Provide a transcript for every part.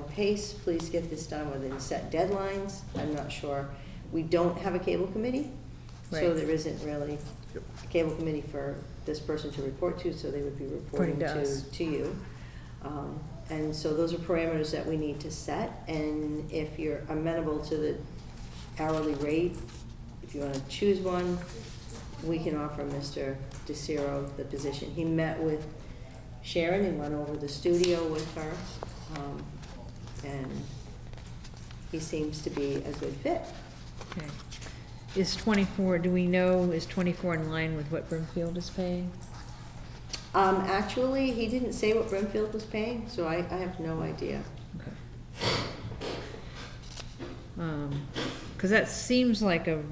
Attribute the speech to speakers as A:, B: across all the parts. A: pace, please get this done within set deadlines, I'm not sure. We don't have a cable committee, so
B: Right.
A: there isn't really
C: Yep.
A: a cable committee for this person to report to, so they would be reporting
B: Reporting to us.
A: to, to you. Um, And so those are parameters that we need to set, and if you're amenable to the hourly rate, if you wanna choose one, we can offer Mr. DeCiro the position. He met with Sharon and went over the studio with her, um, and he seems to be a good fit.
B: Okay. Is twenty-four, do we know, is twenty-four in line with what Brimfield is paying?
A: Um, actually, he didn't say what Brimfield was paying, so I, I have no idea.
B: Um, cause that seems like a,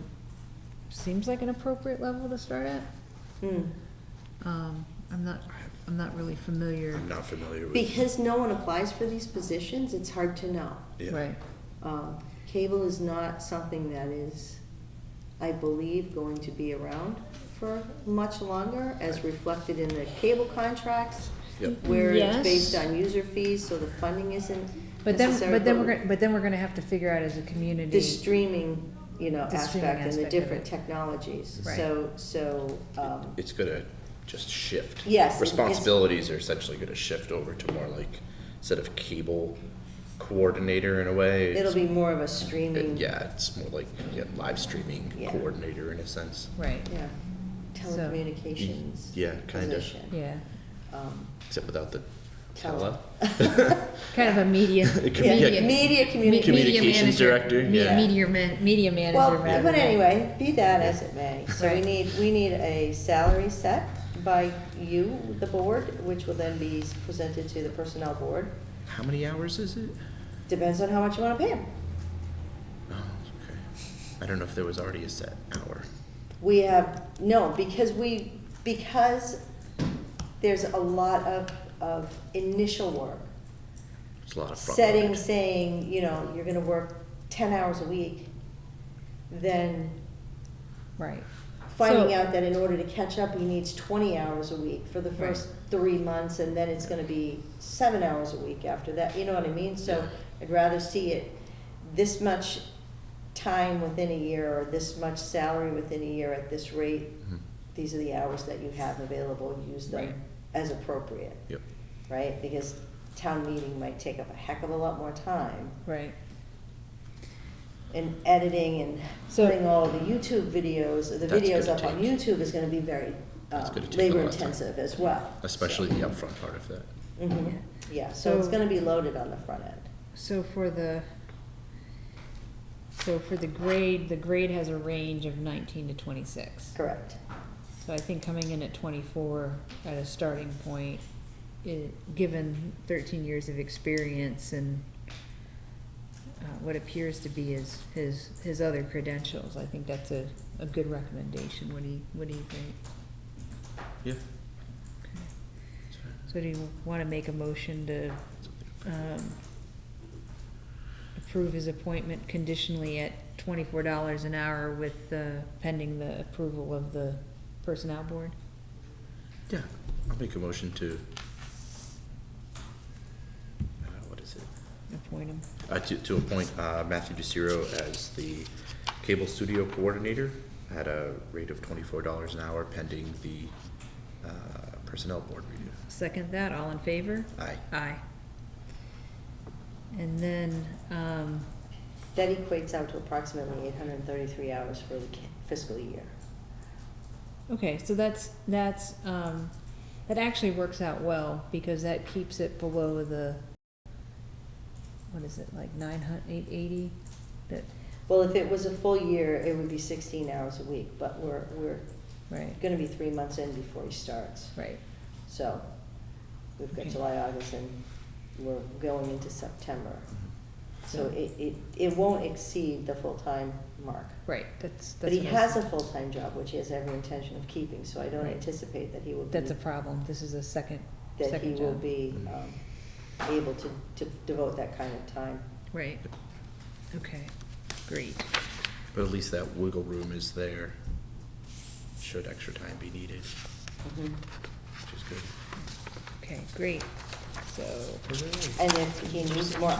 B: seems like an appropriate level to start at.
A: Hmm.
B: Um, I'm not, I'm not really familiar.
C: I'm not familiar with.
A: Because no one applies for these positions, it's hard to know.
C: Yeah.
B: Right,
A: Um, Cable is not something that is, I believe, going to be around for much longer, as reflected in the cable contracts,
C: Yep.
A: where it's
B: Yes.
A: based on user fees, so the funding isn't
B: but then,
A: necessarily.
B: but then we're gonna, but then we're gonna have to figure out as a community.
A: The streaming, you know,
B: The streaming
A: aspect and the
B: aspect of
A: different
B: it.
A: technologies,
B: Right.
A: so, so, um,
C: It's gonna just shift.
A: Yes, it's-
C: Responsibilities are essentially gonna shift over to more like, instead of cable coordinator in a way.
A: it'll
C: it's-
A: be more of a
C: it-
A: streaming.
C: Yeah, it's more like, yeah, live streaming
A: Yeah.
C: coordinator in a sense.
B: Right,
A: Yeah,
B: So-
A: telecommunications.
C: Mm, Yeah, kinda.
A: position.
B: yeah,
A: Um,
C: Except without the tele.
A: Tele.
B: kind of a media,
C: It could be, yeah,
B: media.
A: Media communication.
C: Communications
B: manager.
C: director,
B: Me-
C: yeah.
B: Media man, media manager.
A: Well, but
B: rather than-
A: anyway, be that as it may, so we
B: Right.
A: need, we need a salary set by you, the board, which will then be presented to the personnel board.
C: How many hours is it?
A: Depends on how much you wanna pay him.
C: Oh, okay. I don't know if there was already a set hour.
A: We have, no, because we, because there's a lot of, of initial work.
C: It's a lot of front
A: setting,
C: load.
A: saying, you know, you're gonna work ten hours a week, then
B: Right.
A: finding
B: So-
A: out that in order to catch up, he needs twenty hours a week for the first three months, and then it's gonna be seven hours a week after that, you know what I mean? So I'd rather see it this much time within a year, or this much salary within a year at this rate.
C: Mhm.
A: These are the hours that you have available, use
B: Right.
A: them as appropriate,
C: Yep.
A: right? Because town meeting might take up a heck of a lot more time
B: Right.
A: and editing and
B: So-
A: putting all the YouTube videos, the
C: That's
A: videos
C: gonna
A: up on
C: take-
A: YouTube is gonna be very um,
C: That's gonna take a lot of time.
A: labor intensive as well.
C: Especially the upfront part of that.
A: hmm yeah, so it's
B: So-
A: gonna be loaded on the front end.
B: So for the, so for the grade, the grade has a range of nineteen to twenty-six.
A: Correct.
B: So I think coming in at twenty-four at a starting point, i- given thirteen years of experience and uh, what appears to be his, his, his other credentials, I think that's a, a good recommendation. What do you, what do you think?
C: Yeah.
B: So do you wanna make a motion to um, approve his appointment conditionally at twenty-four dollars an hour with, uh, pending the approval of the personnel board?
C: Yeah, I'll make a motion to. Uh, what is it?
B: Appoint him.
C: Uh, to, to appoint, uh, Matthew DeCiro as the cable studio coordinator at a rate of twenty-four dollars an hour pending the, uh, personnel board review.
B: Second that, all in favor?
C: Aye.
B: Aye. And then, um,
A: That equates out to approximately eight hundred and thirty-three hours for the ca- fiscal year.
B: okay, so that's, that's, um, that actually works out well, because that keeps it below the, what is it, like nine hun, eight eighty? That,
A: Well, if it was a full year, it would be sixteen hours a week, but we're, we're
B: right,
A: gonna be three months in before he starts.
B: right.
A: So, we've got
B: Okay.
A: July, August, and we're going into September. So
B: So-
A: it, it, it won't exceed the full-time mark.
B: Right, that's, that's.
A: But he
B: what I
A: has a
B: said.
A: full-time job, which he has every intention of keeping, so I don't
B: Right.
A: anticipate that he will be,
B: That's a problem, this is a second,
A: that he
B: second
A: will
B: job.
A: be, um, able to, to devote that kind of time.
B: Right, okay, great,
C: But at least that wiggle room is there, should extra time be needed,
B: Mm-hmm.
C: which is good.
B: okay, great, so.
A: And if he needs more